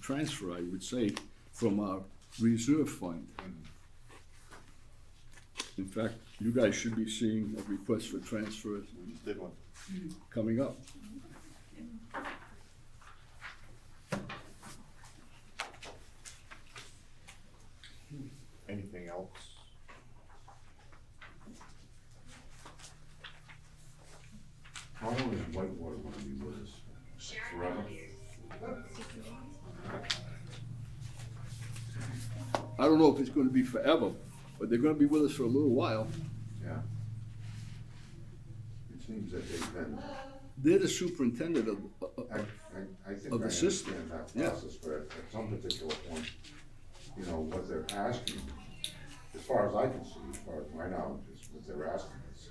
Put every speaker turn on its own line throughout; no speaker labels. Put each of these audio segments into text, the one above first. transfer, I would say, from our reserve fund. In fact, you guys should be seeing a request for transfers
We just did one.
coming up.
Anything else?
How long is Whitewater gonna be with us? Forever?
I don't know if it's gonna be forever, but they're gonna be with us for a little while.
Yeah. It seems that they've been,
They're the superintendent of, uh,
I, I,
of-
I think I
Of the system,
understand that
yeah.
process, but at at some particular point, you know, what they're asking, as far as I can see, as far as my knowledge is, what they're asking is,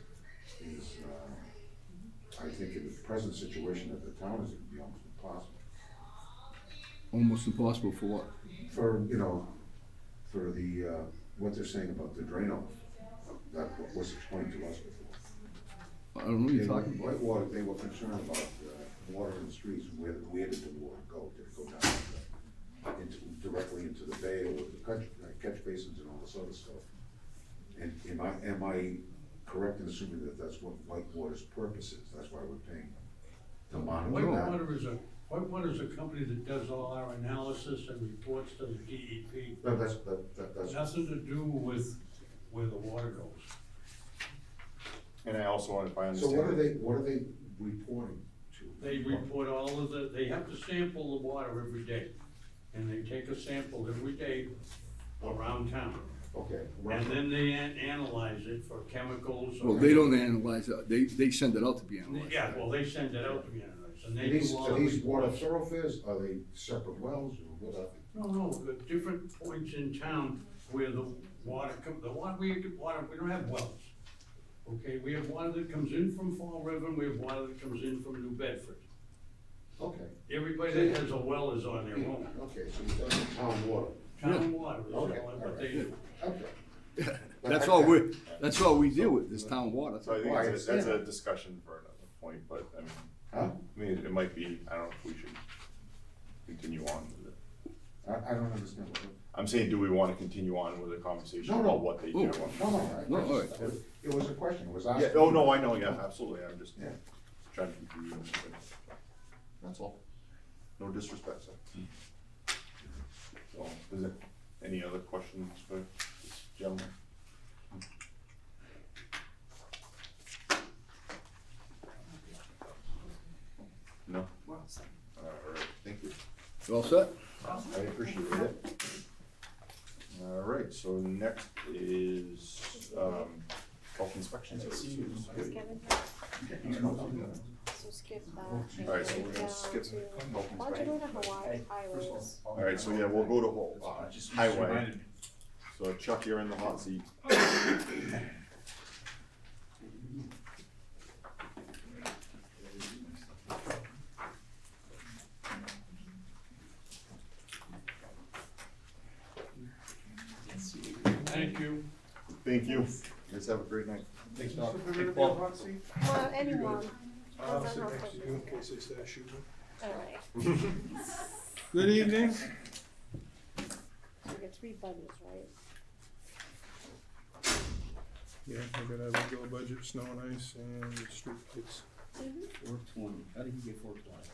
is, uh, I think in the present situation that the town is, it'd be almost impossible.
almost impossible for what?
for, you know, for the, uh, what they're saying about the drain off, that wa- was explained to us before.
I don't know what
They
you're
were,
talking about.
Whitewater, they were concerned about, uh, water in the streets, and where, where did the water go? Did it go down the- into, directly into the bay or the catch, uh, catch basins and all this other stuff? And am I, am I correct in assuming that that's what Whitewater's purpose is? That's why we're paying to monitor that?
Whitewater is a, Whitewater is a company that does all our analysis and reports to the DEP.
No, that's, that, that, that's.
Nothing to do with where the water goes.
And I also wanted, if I
So
understand.
what are they, what are they reporting to?
They report all of the, they have to sample the water every day. And they take a sample every day around town.
Okay.
And then they an- analyze it for chemicals. or-
Well, they don't analyze, it. they, they send it out to be analyzed.
Yeah, well, they send it out to be analyzed and
Are
they
These,
do all.
are
the
these water
reports.
thoroughfares, are they separate wells or what are they?
No, no, the different points in town where the water come, the water, we, get water, we don't have wells. Okay, we have water that comes in from Fall River, and we have water that comes in from New Bedford.
Okay.
Everybody that has a well is on their own.
Okay, so you're talking town water.
Town water is all
Okay, all
that
right.
they do.
Okay.
That's all we, that's all we deal with, is town water.
So I think
Well, I
it's a- that's a
understand.
discussion for another point, but I mean,
Huh?
I mean, it- it might be, I don't know if we should continue on with it.
I, I don't understand what,
I'm saying, do we wanna continue on with the conversation
No, no.
about what they
Oh.
do?
no, no,
No,
no.
all
I- I
right.
just- It was a question, it was asked.
Yeah, oh, no, I know, yeah, absolutely, I'm just
Yeah.
trying to keep you. That's all. No disrespect, sir. So, is there any other questions for this gentleman? No? All right, thank you.
You all set?
I appreciate it. All right, so next is, um, health inspections.
So skip that.
Alright, so we're
Down
gonna skip.
to-
health
Why don't you
inspections.
go to Hawaii highways?
All right, so yeah, we'll go to whole, uh, highway. So Chuck, you're in the hot seat.
Thank you.
Thank you. Guys have a great night.
Thanks,
Doc.
Hey,
Paul.
Paul.
Well, anyone.
I'll sit next to you in case they start shooting.
Alright,
Good evening.
you get three bunnies, right?
Yeah, I got a regular budget, snow and ice, and the street kids.
Four twenty, how did you get four twenty?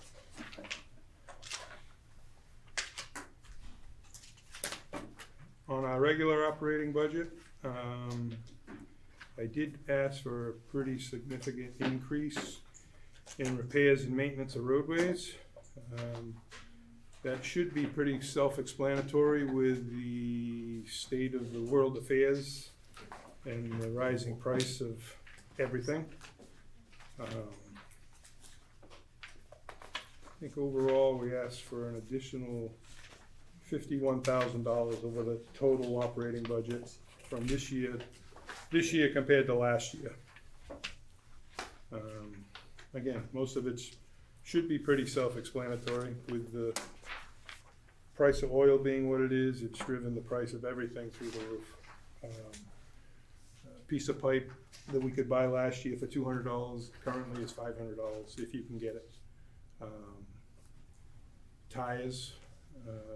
On our regular operating budget, um, I did ask for a pretty significant increase in repairs and maintenance of roadways. Um, That should be pretty self-explanatory with the state of the world affairs and the rising price of everything. Um, I think overall, we asked for an additional fifty-one thousand dollars over the total operating budget from this year, this year compared to last year. Um, Again, most of it should be pretty self-explanatory with the price of oil being what it is, it's driven the price of everything through the roof. Um, a Piece of pipe that we could buy last year for two hundred dollars currently is five hundred dollars if you can get it. Um, Tires, uh, uh,